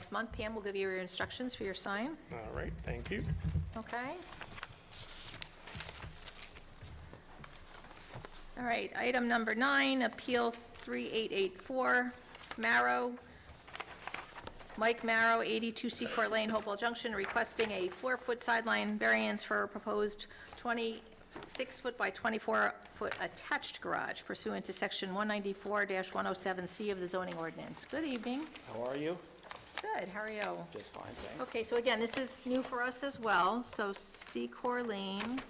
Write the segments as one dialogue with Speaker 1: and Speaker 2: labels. Speaker 1: next month. Pam will give you your instructions for your sign,
Speaker 2: All right, thank you.
Speaker 1: okay? All right, item number nine, Appeal 3884, Marrow, Mike Marrow, 82 Seacourt Lane, Hopewell Junction, requesting a four-foot sideline variance for a proposed 26-foot by 24-foot attached garage pursuant to Section 194-107C of the zoning ordinance. Good evening.
Speaker 3: How are you?
Speaker 1: Good, how are you?
Speaker 3: Just fine, thanks.
Speaker 1: Okay, so again, this is new for us as well, so C. Corleen.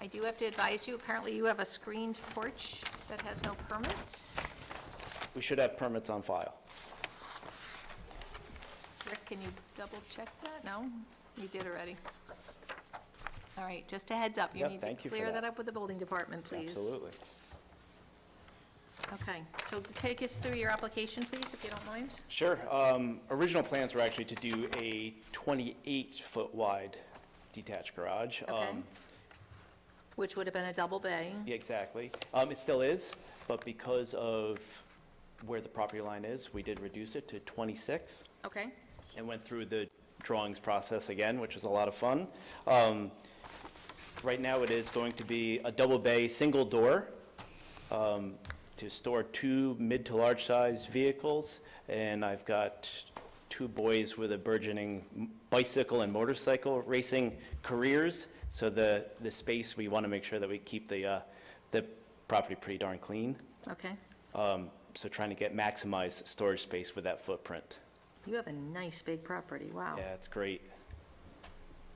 Speaker 1: I do have to advise you, apparently you have a screened porch that has no permits. Oh.
Speaker 3: We should have permits on file.
Speaker 1: Rick, can you double check that? No? You did already. All right, just a heads up, you
Speaker 3: Yep,
Speaker 1: need to
Speaker 3: thank you for
Speaker 1: clear
Speaker 3: that.
Speaker 1: that up with the building department, please.
Speaker 3: Absolutely.
Speaker 1: Okay, so take us through your application, please, if you don't mind.
Speaker 3: Sure. Um, Original plans were actually to do a 28-foot wide detached garage.
Speaker 1: Okay.
Speaker 3: Um,
Speaker 1: Which would have been a double bay.
Speaker 3: Yeah, exactly. Um, It still is, but because of where the property line is, we did reduce it to 26
Speaker 1: Okay,
Speaker 3: and went through the drawings process again, which was a lot of fun. Um, Right now, it is going to be a double bay, single door um, to store two mid to large size vehicles. And I've got two boys with a burgeoning bicycle and motorcycle racing careers. So the, the space, we want to make sure that we keep the, uh, the property pretty darn clean.
Speaker 1: okay.
Speaker 3: Um, So trying to get maximized storage space with that footprint.
Speaker 1: You have a nice big property, wow.
Speaker 3: Yeah, it's great.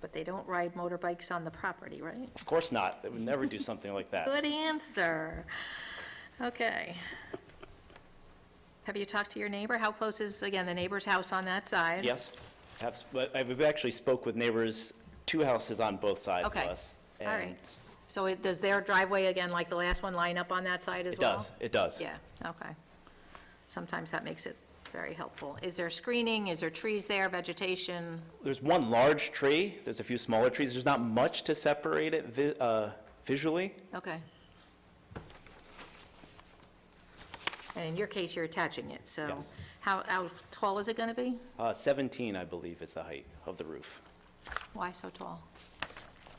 Speaker 1: But they don't ride motorbikes on the property, right?
Speaker 3: Of course not. They would never do something like that.
Speaker 1: Good answer. Okay. Have you talked to your neighbor? How close is, again, the neighbor's house on that side?
Speaker 3: Yes, have, but I've actually spoke with neighbors, two houses on both sides of
Speaker 1: Okay.
Speaker 3: us.
Speaker 1: All right.
Speaker 3: and
Speaker 1: So it, does their driveway, again, like the last one, line up on that side as
Speaker 3: It
Speaker 1: well?
Speaker 3: does, it does.
Speaker 1: Yeah, okay. Sometimes that makes it very helpful. Is there screening? Is there trees there, vegetation?
Speaker 3: There's one large tree, there's a few smaller trees, there's not much to separate it vi- uh, visually.
Speaker 1: Okay. And in your case, you're attaching it, so.
Speaker 3: Yes.
Speaker 1: How, how tall is it going to be?
Speaker 3: Uh, 17, I believe, is the height of the roof,
Speaker 1: Why so tall?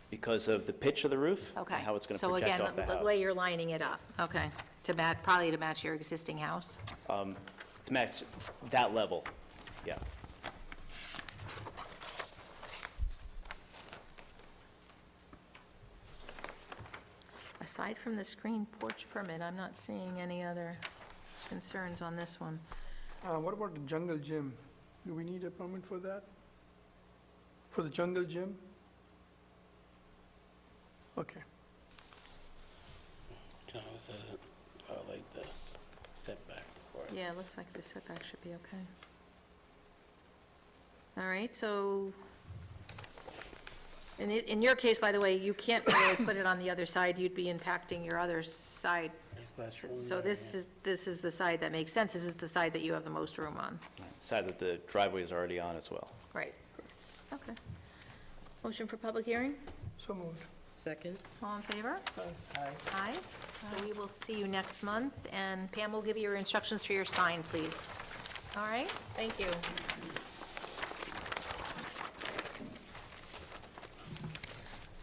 Speaker 3: because of the pitch of the roof. and
Speaker 1: Okay.
Speaker 3: How it's going to project off the
Speaker 1: So again, the
Speaker 3: house.
Speaker 1: way you're lining it up, okay, to match, probably to match your existing house.
Speaker 3: To match that level, yes.
Speaker 1: Aside from the screen porch permit, I'm not seeing any other concerns on this one.
Speaker 4: Uh, What about the jungle gym? Do we need a permit for that? For the jungle gym? Okay.
Speaker 5: No, the, oh, like the setback for it.
Speaker 1: Yeah, it looks like the setback should be okay. All right, so, in, i- in your case, by the way, you can't really put it on the other side, you'd be impacting your other side.
Speaker 5: That's one
Speaker 1: So
Speaker 5: by
Speaker 1: this
Speaker 5: one.
Speaker 1: is, this is the side that makes sense, this is the side that you have the most room on.
Speaker 3: Side that the driveway is already on as well.
Speaker 1: Right. Okay. Motion for public hearing?
Speaker 4: So moved.
Speaker 6: Second?
Speaker 1: All in favor?
Speaker 4: Aye.
Speaker 1: Aye. So we will see you next month, and Pam will give you your instructions for your sign, please. All right? Thank you.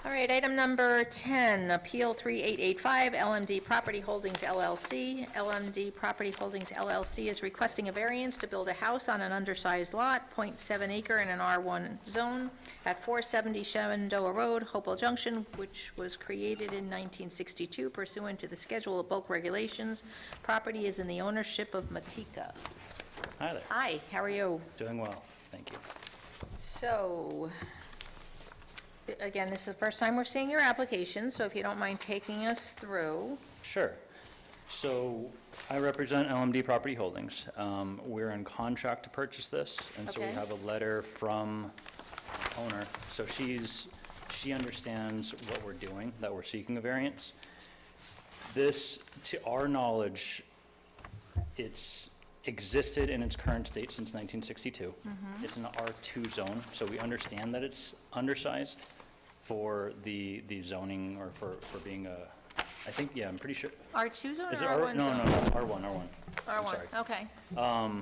Speaker 1: All right, item number 10, Appeal 3885, LMD Property Holdings LLC. LMD Property Holdings LLC is requesting a variance to build a house on an undersized lot, .7 acre in an R1 zone at 470 Shenandoah Road, Hopewell Junction, which was created in 1962 pursuant to the Schedule of Bulk Regulations. Property is in the ownership of Matika.
Speaker 5: Hi there.
Speaker 1: Hi, how are you?
Speaker 5: Doing well, thank you.
Speaker 1: So, again, this is the first time we're seeing your application, so if you don't mind taking us through.
Speaker 5: Sure. So I represent LMD Property Holdings. Um, We're in contract to purchase this, and so we
Speaker 1: Okay.
Speaker 5: have a letter from owner. So she's, she understands what we're doing, that we're seeking a variance. This, to our knowledge, it's existed in its current state since 1962. It's an R2 zone, so we understand that it's undersized for the, the zoning or for, for being a I think, yeah, I'm pretty sure.
Speaker 1: R2 zone or
Speaker 5: Is it R,
Speaker 1: R1
Speaker 5: no, no,
Speaker 1: zone?
Speaker 5: no, R1, R1. I'm sorry.
Speaker 1: R1, okay.